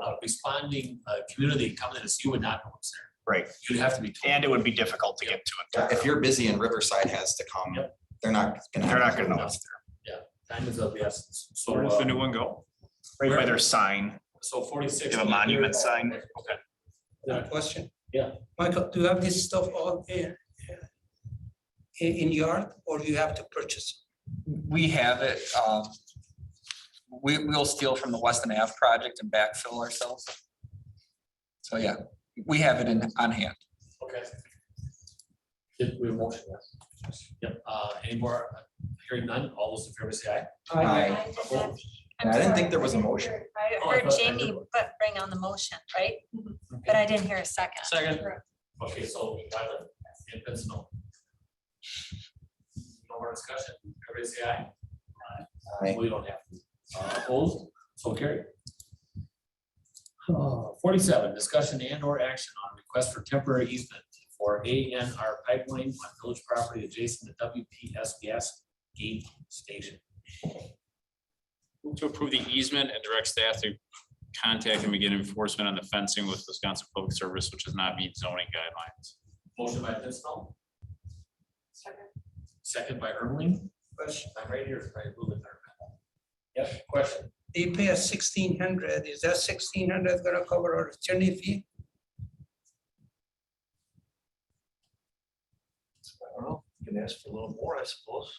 a responding uh, community coming at us, you would not know what's there. Right. You'd have to be told. And it would be difficult to get to it. If you're busy and Riverside has to come, Yep. they're not gonna. They're not gonna know have- what's Time is of the essence. So, Where does the new uh, one go? there. Right by their sign. so forty-six. They have a monument sign. Okay. One question. Yeah. Michael, do you have this stuff all in, in in yard or you have to purchase? We have it, um, we, we'll steal from the Weston Ave project and backfill ourselves. So, yeah, we have it in, on hand. Okay. Did we motion that? Yep, uh, any more, hearing none, all those in favor say aye. Aye. I just had- I I'm didn't sorry, think there was a didn't motion. hear- I Oh, I heard thought I did Jamie one. but bring on the motion, right? But I didn't hear a second. Second. Okay, so Tyler, and Vince, no. No more discussion, everybody say aye. Aye. We don't have to. Uh, Opposed, so carried. Uh, Forty-seven, discussion and or action on request for temporary easement for A N R pipeline on village property adjacent to W P S gas gate station. Move To approve the easement and direct staff to contact and begin enforcement on the fencing with Wisconsin Public Service, which does not meet zoning guidelines. Motion by Vince, no. Second by Ermeling. Question. I'm right here, right, move it there. Yep, question. They pay us sixteen hundred. Is that sixteen hundred gonna cover our attorney fee? I don't know, you can ask for a little more, I suppose.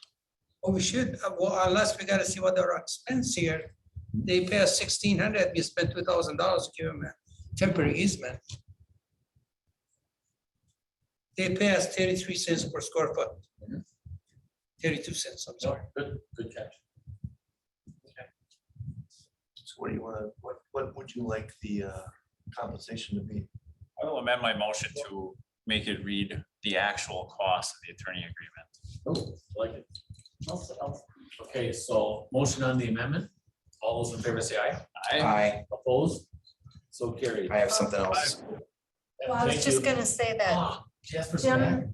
Or we should, uh, well, unless we gotta see what our expense here. They pay us sixteen hundred, we spent two thousand dollars, give them a temporary easement. They pay us thirty-three cents per square foot. Mm-hmm. Thirty-two cents, I'm sorry. Good, good catch. So what do you wanna, what, what would you like the uh, compensation to be? I will amend my motion to make it read the actual cost of the attorney Oh. agreement. Like it. Okay, so motion on the amendment. All those in favor say aye. Aye, Opposed? So carried. I have something else. Well, I was Thank just you. gonna say that Ah, Jasper's back. Jim,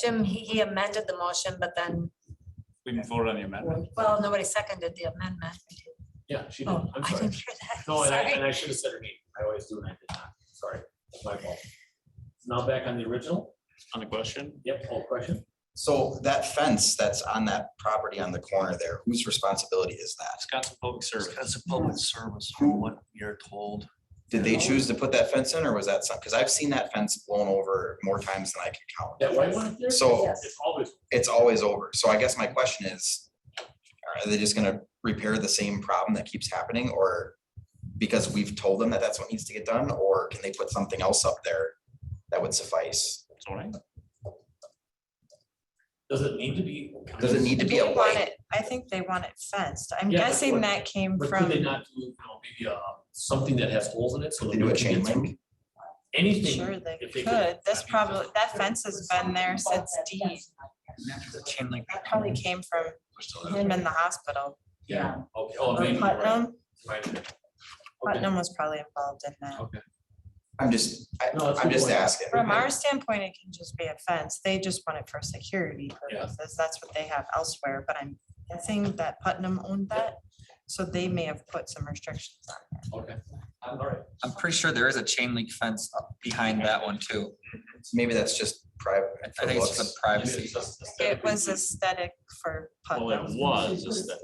Jim, he he amended the motion, but then, We can vote on the amendment. well, nobody seconded the amendment. Yeah, she did. Oh, I'm I sorry. didn't hear that. No, and I, and Sorry. I should have said her name. I always do and I did not. Sorry, that's my fault. Now back on the original. On the question, Yep, whole question. So that fence that's on that property on the corner there, whose responsibility is that? Wisconsin Public Service. That's a public service from what you're told. Did they choose to put that fence in or was that some, because I've seen that fence blown over more times than I can count. That white one there? So- It's always, it's always over. So I guess my question is, are they just gonna repair the same problem that keeps happening or because we've told them that that's what needs to get done, or can they put something else up there that would suffice? zoning. does it need to be? Does it need to be a They want light? it, I think they want it fenced. I'm Yeah, but what- guessing that came But could from, they not do, you know, maybe, uh, something that has holes in it? so They that do a we can chain get through? link? Anything. sure they if they could- could. This probably, that fence has been there since D. The chain link. That probably came from him in the hospital. Yeah, okay, oh, Or maybe, right, Putnam, right. Okay. Putnam was probably involved in that. Okay. I'm just, I, No, that's a I'm good just point. asking. From our standpoint, it can just be a fence. They just want it for security Yeah. purposes. That's what they have elsewhere, but I'm guessing that Putnam owned that. So they may have put some restrictions on it. Okay, all right. I'm pretty sure there is a chain link fence up behind that one too. Maybe that's just private. I think it's the privacy. It was aesthetic for Well, it Putnam. was. it's that-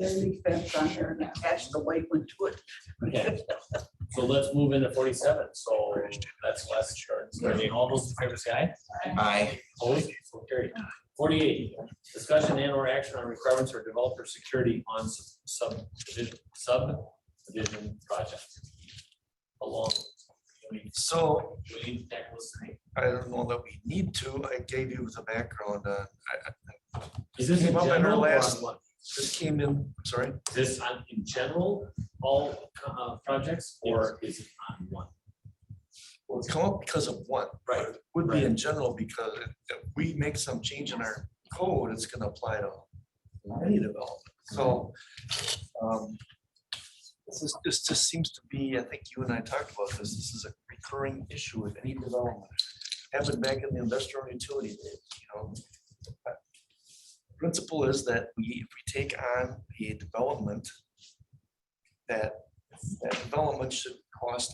Okay. So let's move into forty-seven, so that's less insurance, I mean, all those in favor say aye, I, opposed, so carried. Forty-eight, discussion and or action on requirements for developer security on s- subdivision, subdivision project. Along. we need- So we need to tackle this tonight. I don't know that we need to. I gave you the background. uh, I- I- Is this in Came up in our general or on last- what? This came in, I'm sorry, Is this on, in general, all, uh, projects, or is it on one? well, it's come up because of one. Right, It Would be in general because if we make some change in our code, it's gonna apply to any development. So um, this is, this just seems to be, I think you and I talked about this, this is a recurring issue with any development. Happened back in the industrial utility, days, you know. Principle is that we, if we take on a development, that, that development should cost